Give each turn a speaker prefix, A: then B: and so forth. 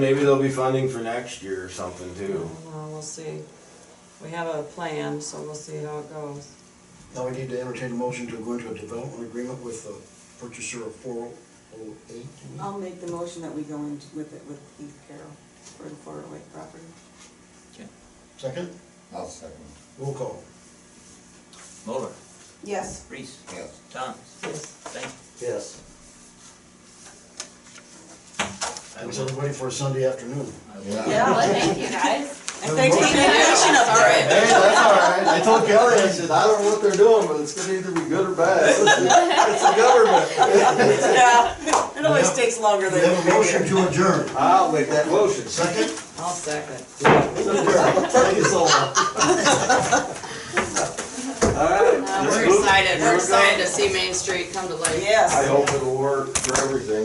A: Maybe there'll be funding for next year or something too.
B: Well, we'll see. We have a plan, so we'll see how it goes.
C: Now we need to entertain a motion to go into a development agreement with the purchaser of four oh eight.
B: Uh.
D: I'll make the motion that we go in with it with Keith Carroll for the Florida Lake property.
C: Second,
E: I'll second.
C: roll call.
F: Moller,
D: Yes.
F: Reese,
E: Yes.
F: Thomas,
B: Yes.
F: thank
C: Yes.
F: I
C: Thanks
F: will-
C: everybody for a Sunday afternoon.
F: you. I will-
E: Yeah.
G: Well, thank you guys.
B: And thanks for taking action up, all
A: Hey,
B: right.
A: that's all right. I told Kelly, I said, I don't know what they're doing, but it's gonna either be good or bad. It's the government.
B: Yeah, it always takes longer
C: We
B: than
C: have a
B: we
C: motion
B: figure.
C: to adjourn.
A: I'll make that motion.
C: Second,
B: I'll second.
C: thank you so much.
A: All right.
B: We're excited, we're excited to see Main Street come to life.
D: Yes.
A: I hope it'll work for everything.